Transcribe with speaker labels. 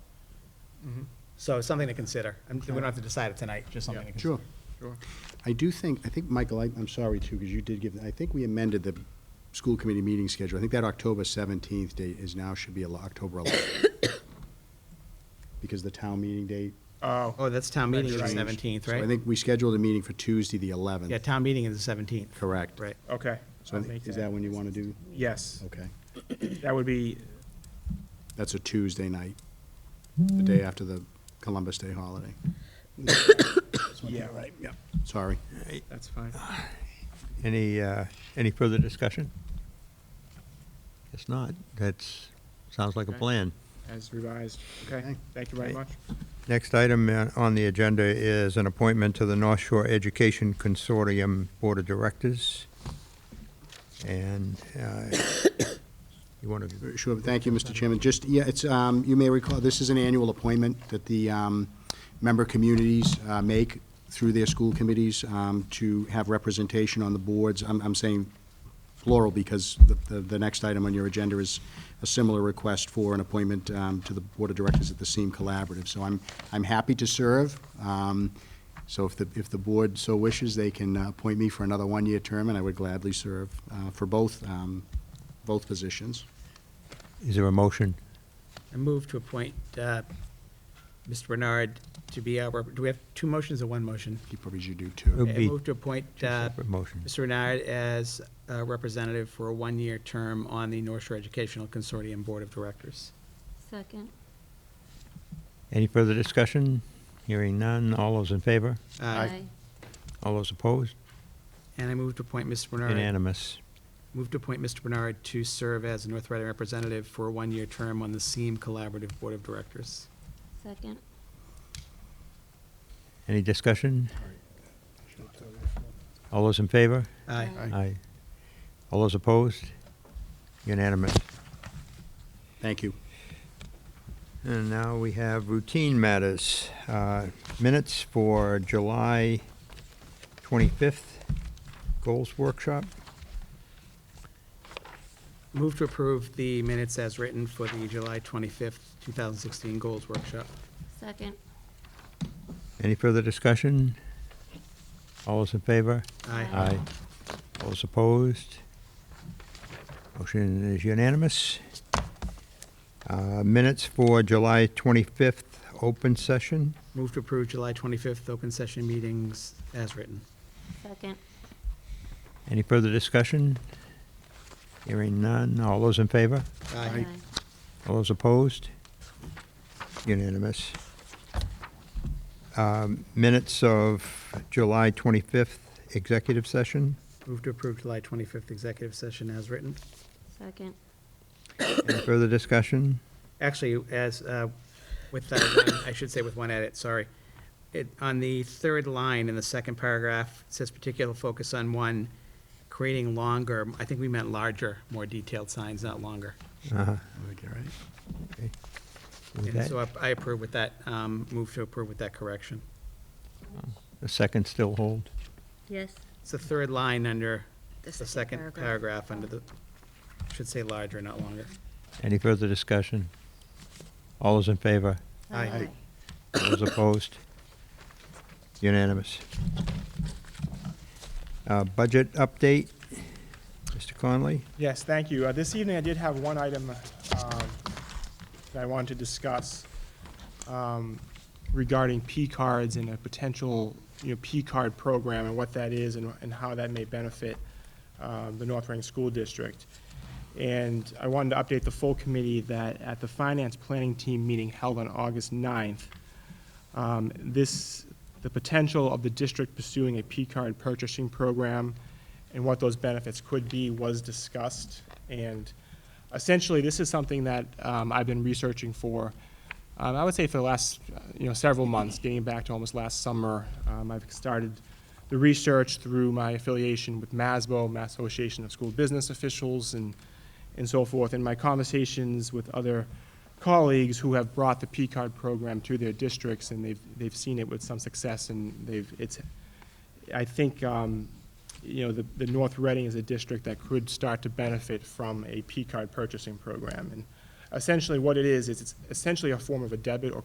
Speaker 1: So it's something to consider. And we don't have to decide it tonight, just something to consider.
Speaker 2: Sure. Sure. I do think, I think, Michael, I- I'm sorry too, because you did give, I think we amended the school committee meeting schedule. I think that October 17th date is now, should be a lo- October 11th. Because the town meeting date.
Speaker 3: Oh,
Speaker 1: Oh, that's town meeting is the
Speaker 3: That's right.
Speaker 1: seventeenth,
Speaker 2: So I
Speaker 1: right?
Speaker 2: think we scheduled a meeting for Tuesday, the 11th.
Speaker 1: Yeah, town meeting is the seventeenth.
Speaker 2: Correct.
Speaker 1: Right.
Speaker 3: okay.
Speaker 2: So I
Speaker 3: I'll
Speaker 2: thi-
Speaker 3: make
Speaker 2: is that when you want to do?
Speaker 3: Yes,
Speaker 2: Okay.
Speaker 3: that would be,
Speaker 2: That's a Tuesday night, the day after the Columbus Day holiday.
Speaker 3: yeah,
Speaker 2: Yep. Sorry.
Speaker 3: that's fine.
Speaker 4: Any, uh, any further discussion? Guess not. That's, sounds like a
Speaker 3: Okay.
Speaker 4: plan.
Speaker 3: As revised. Okay,
Speaker 2: Okay.
Speaker 3: thank you very
Speaker 4: Okay.
Speaker 3: much.
Speaker 4: Next item uh, on the agenda is an appointment to the North Shore Education Consortium Board of Directors. And uh, you want to,
Speaker 2: Sure, thank you, Mr. Chairman. Just, yeah, it's, um, you may recall, this is an annual appointment that the um, member communities uh, make through their school committees um, to have representation on the boards. I'm I'm saying plural because the- the the next item on your agenda is a similar request for an appointment um, to the Board of Directors at the SEEM Collaborative. So I'm, I'm happy to serve. Um, So if the, if the board so wishes, they can uh, appoint me for another one-year term, and I would gladly serve uh, for both, um, both positions.
Speaker 4: is there a motion?
Speaker 1: I move to appoint, uh, Mr. Bernard to be our, do we have two motions or one motion?
Speaker 2: You probably should do
Speaker 4: It'll
Speaker 2: too.
Speaker 1: Okay, I
Speaker 4: be
Speaker 1: move to appoint,
Speaker 4: two
Speaker 1: uh,
Speaker 4: separate motions.
Speaker 1: Mr. Bernard as a representative for a one-year term on the North Shore Educational Consortium Board of Directors.
Speaker 5: Second.
Speaker 4: Any further discussion? Hearing none. All those in favor? All those opposed?
Speaker 1: And I move to appoint Mr. Bernard.
Speaker 4: Unanimous.
Speaker 1: Move to appoint Mr. Bernard to serve as a North Reading representative for a one-year term on the SEEM Collaborative Board of Directors.
Speaker 5: Second.
Speaker 4: Any discussion? All those in favor?
Speaker 1: Aye.
Speaker 5: Aye.
Speaker 4: Aye. All those opposed? Unanimous.
Speaker 2: Thank you.
Speaker 4: And now we have routine matters. Uh, Minutes for July 25th, goals workshop.
Speaker 1: Move to approve the minutes as written for the July 25th, 2016 Goals Workshop.
Speaker 5: Second.
Speaker 4: Any further discussion? All those in favor?
Speaker 1: Aye.
Speaker 5: Aye.
Speaker 4: All those opposed? Motion is unanimous. Uh, Minutes for July 25th, open session.
Speaker 1: Move to approve July 25th open session meetings as written.
Speaker 5: Second.
Speaker 4: Any further discussion? Hearing none. All those in favor? All those opposed? Unanimous. Um, Minutes of July 25th, executive session.
Speaker 1: Move to approve July 25th executive session as written.
Speaker 5: Second.
Speaker 4: Any further discussion?
Speaker 1: Actually, as, uh, with that one, I should say with one edit, sorry. It, on the third line in the second paragraph, it says particular focus on one, creating longer, I think we meant larger, more detailed signs, not longer.
Speaker 4: Uh-huh. Okay. With
Speaker 1: And
Speaker 4: that,
Speaker 1: so I- I approve with that, um, move to approve with that correction.
Speaker 4: The second still hold?
Speaker 5: Yes.
Speaker 1: It's the third line under, the
Speaker 5: The second
Speaker 1: second
Speaker 5: paragraph.
Speaker 1: paragraph under the, should say larger, not longer.
Speaker 4: Any further discussion? All those in favor?
Speaker 1: Aye.
Speaker 4: All those opposed? Unanimous. Uh, Budget update, Mr. Conley?
Speaker 3: Yes, thank you. Uh, This evening, I did have one item um, that I wanted to discuss um, regarding P cards and a potential, you know, P card program and what that is and and how that may benefit um, the North Reading School District. And I wanted to update the full committee that at the Finance Planning Team meeting held on August 9th, um, This, the potential of the district pursuing a P-card purchasing program and what those benefits could be was discussed. And essentially, this is something that um, I've been researching for, um, I would say for the last, uh, you know, several months, getting back to almost last summer. Um, I've started the research through my affiliation with MASBO, Mass Association of School Business Officials, and, and so forth, and my conversations with other colleagues who have brought the P-card program to their districts, and they've, they've seen it with some success, and they've, it's, I think, um, you know, the, the North Reading is a district that could start to benefit from a P-card purchasing program. And essentially what it is, is it's essentially a form of a debit or